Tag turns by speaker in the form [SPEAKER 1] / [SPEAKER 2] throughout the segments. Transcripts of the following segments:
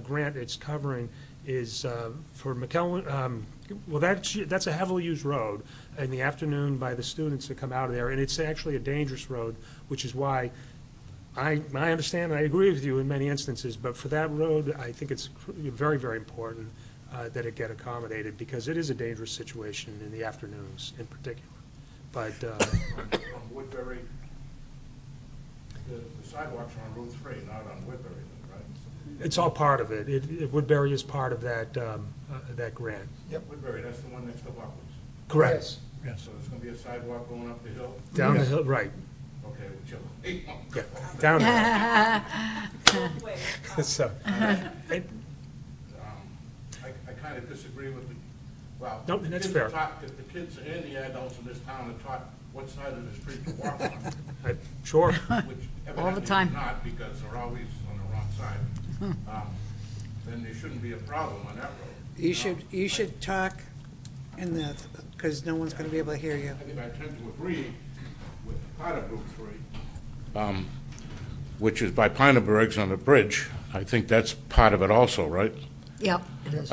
[SPEAKER 1] grant it's covering is uh, for McKellen, um, well, that's, that's a heavily used road in the afternoon by the students that come out of there, and it's actually a dangerous road, which is why I, I understand, and I agree with you in many instances, but for that road, I think it's cr- very, very important uh, that it get accommodated, because it is a dangerous situation in the afternoons in particular. But, uh,
[SPEAKER 2] on Woodbury, the the sidewalks are on Route 3, not on Woodbury, right?
[SPEAKER 1] It's all part of it. It it- Woodbury is part of that, um, uh, that grant.
[SPEAKER 2] Woodbury, that's the one next to Buckley's.
[SPEAKER 1] Correct.
[SPEAKER 2] So there's going to be a sidewalk going up the hill?
[SPEAKER 1] Down the hill, right,
[SPEAKER 2] Okay, whichever.
[SPEAKER 1] yeah, down the hill. So,
[SPEAKER 2] Um, I, I kind of disagree with the, well.
[SPEAKER 1] No,
[SPEAKER 2] the
[SPEAKER 1] that's
[SPEAKER 2] kids are
[SPEAKER 1] fair.
[SPEAKER 2] taught- The the kids and the adults in this town are taught what side of the street to walk on,
[SPEAKER 1] I- sure,
[SPEAKER 2] which
[SPEAKER 3] All the
[SPEAKER 2] evidently
[SPEAKER 3] time.
[SPEAKER 2] is not, because they're always on the wrong side.
[SPEAKER 1] Hmm.
[SPEAKER 2] Um, Then there shouldn't be a problem on that road.
[SPEAKER 4] You should, you should talk in the, because no one's gonna be able to hear you.
[SPEAKER 2] I think I tend to agree with part of Route 3,
[SPEAKER 5] Um, which is by Pinneberg's on the bridge. I think that's part of it also, right? Um,
[SPEAKER 3] Yep, it is.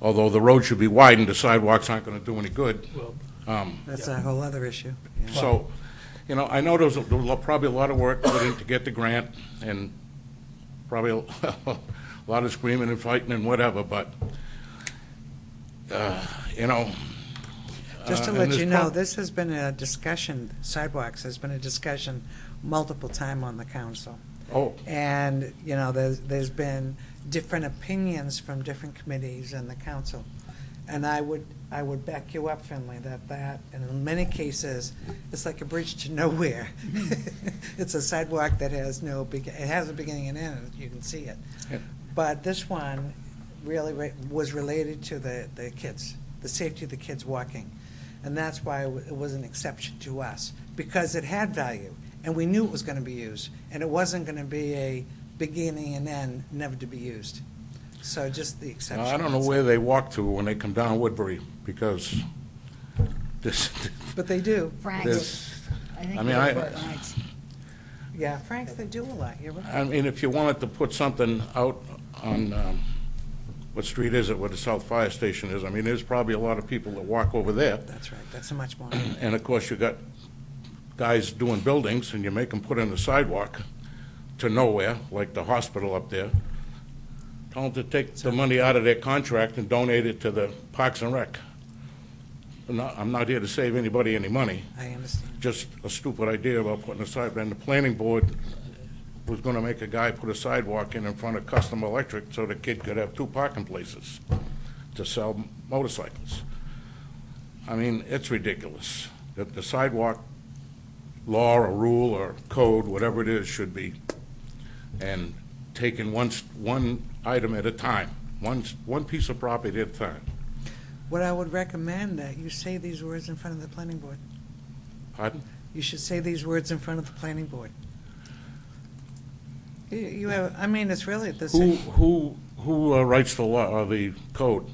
[SPEAKER 5] Although the road should be widened, the sidewalks aren't going to do any good.
[SPEAKER 1] well,
[SPEAKER 4] That's a whole other issue. yeah.
[SPEAKER 5] So, you know, I know there was a- there was probably a lot of work put in to get the grant and probably a lot of screaming and fighting and whatever, but, uh, you know.
[SPEAKER 4] Just
[SPEAKER 5] uh,
[SPEAKER 4] to
[SPEAKER 5] and
[SPEAKER 4] let
[SPEAKER 5] there's
[SPEAKER 4] you know,
[SPEAKER 5] prob-
[SPEAKER 4] this has been a discussion, sidewalks has been a discussion multiple time on the council.
[SPEAKER 5] Oh,
[SPEAKER 4] And, you know, there's, there's been different opinions from different committees and the council. And I would, I would back you up, Finley, that that, and in many cases, it's like a bridge to nowhere. It's a sidewalk that has no, beg- it has a beginning and end, you can see it. But this one really re- was related to the, the kids, the safety of the kids walking. And that's why it wa- it was an exception to us, because it had value, and we knew it was going to be used, and it wasn't going to be a beginning and end, never to be used. So just the exception.
[SPEAKER 5] I don't know where they walk to when they come down Woodbury, because this,
[SPEAKER 4] But they do.
[SPEAKER 3] Frank's.
[SPEAKER 5] this,
[SPEAKER 3] think
[SPEAKER 5] I mean,
[SPEAKER 3] that's
[SPEAKER 5] I-
[SPEAKER 3] Frank's.
[SPEAKER 4] Yeah, Franks, they do a lot, you're right.
[SPEAKER 5] I mean, if you wanted to put something out on, um, what street is it, where the South Fire Station is, I mean, there's probably a lot of people that walk over there.
[SPEAKER 4] That's right, that's a much more.
[SPEAKER 5] And of course, you got guys doing buildings, and you make them put in the sidewalk to nowhere, like the hospital up there. Tell them to take the money out of their contract and donate it to the Parks and Rec. I'm not, I'm not here to save anybody any money
[SPEAKER 4] I understand.
[SPEAKER 5] just a stupid idea about putting a side, and the planning board was gonna make a guy put a sidewalk in in front of Custom Electric so the kid could have two parking places to sell motorcycles. I mean, it's ridiculous that the sidewalk law or rule or code, whatever it is, should be, and taken one, s- one item at a time, one, s- one piece of property at a time.
[SPEAKER 4] What I would recommend that you say these words in front of the planning board.
[SPEAKER 5] Pardon?
[SPEAKER 4] You should say these words in front of the planning board. You- You have, I mean, it's really
[SPEAKER 5] Who,
[SPEAKER 4] the same.
[SPEAKER 5] who, who uh, writes the law, or the code?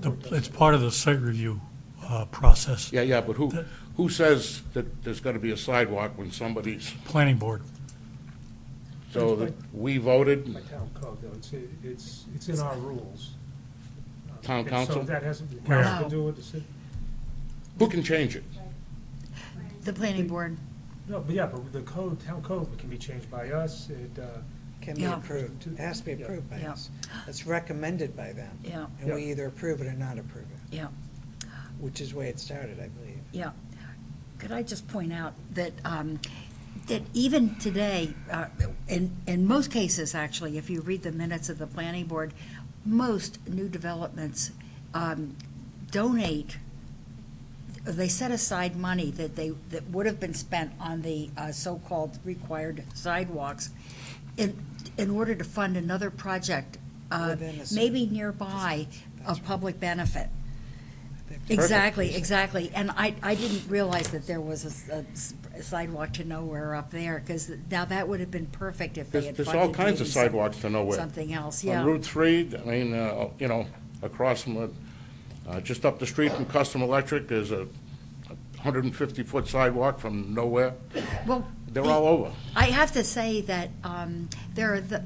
[SPEAKER 6] The- It's part of the site review uh, process,
[SPEAKER 5] Yeah, yeah, but who, who says that there's gonna be a sidewalk when somebody's,
[SPEAKER 6] planning board.
[SPEAKER 5] so that we voted,
[SPEAKER 1] by town code, though, it's, it's, it's in our rules.
[SPEAKER 5] Town
[SPEAKER 1] And So
[SPEAKER 5] council?
[SPEAKER 1] that hasn't, the council
[SPEAKER 3] No.
[SPEAKER 1] can do what the city,
[SPEAKER 5] who can change it?
[SPEAKER 3] The planning board,
[SPEAKER 1] no, but yeah, but the code, town code can be changed by us, it, uh,
[SPEAKER 4] Can be
[SPEAKER 3] Yeah.
[SPEAKER 4] approved. It has to be
[SPEAKER 1] Yeah.
[SPEAKER 4] approved by
[SPEAKER 3] Yeah.
[SPEAKER 4] us. It's recommended by them.
[SPEAKER 3] yeah,
[SPEAKER 4] And we
[SPEAKER 1] Yeah.
[SPEAKER 4] either approve it or not approve it,
[SPEAKER 3] yeah,
[SPEAKER 4] which is the way it started, I believe.
[SPEAKER 3] yeah. Could I just point out that, um, that even today, uh, in, in most cases, actually, if you read the minutes of the planning board, most new developments um, donate, they set aside money that they, that would have been spent on the uh, so-called required sidewalks in, in order to fund another project, uh,
[SPEAKER 4] Within a certain-
[SPEAKER 3] maybe nearby, of public benefit. Exactly, exactly. And I, I didn't realize that there was a s- a s- a sidewalk to nowhere up there, because now that would have been perfect if they
[SPEAKER 5] There's,
[SPEAKER 3] had
[SPEAKER 5] there's
[SPEAKER 3] funded.
[SPEAKER 5] all kinds of
[SPEAKER 3] maybe some-
[SPEAKER 5] sidewalks to nowhere.
[SPEAKER 3] Something else,
[SPEAKER 5] On
[SPEAKER 3] yeah,
[SPEAKER 5] Route Three, I mean, uh, you know, across from, the- uh, just up the street from Custom Electric, there's a hundred and fifty-foot sidewalk from nowhere.
[SPEAKER 3] well.
[SPEAKER 5] They're
[SPEAKER 3] the-
[SPEAKER 5] all over.
[SPEAKER 3] I have to say that um, there are the,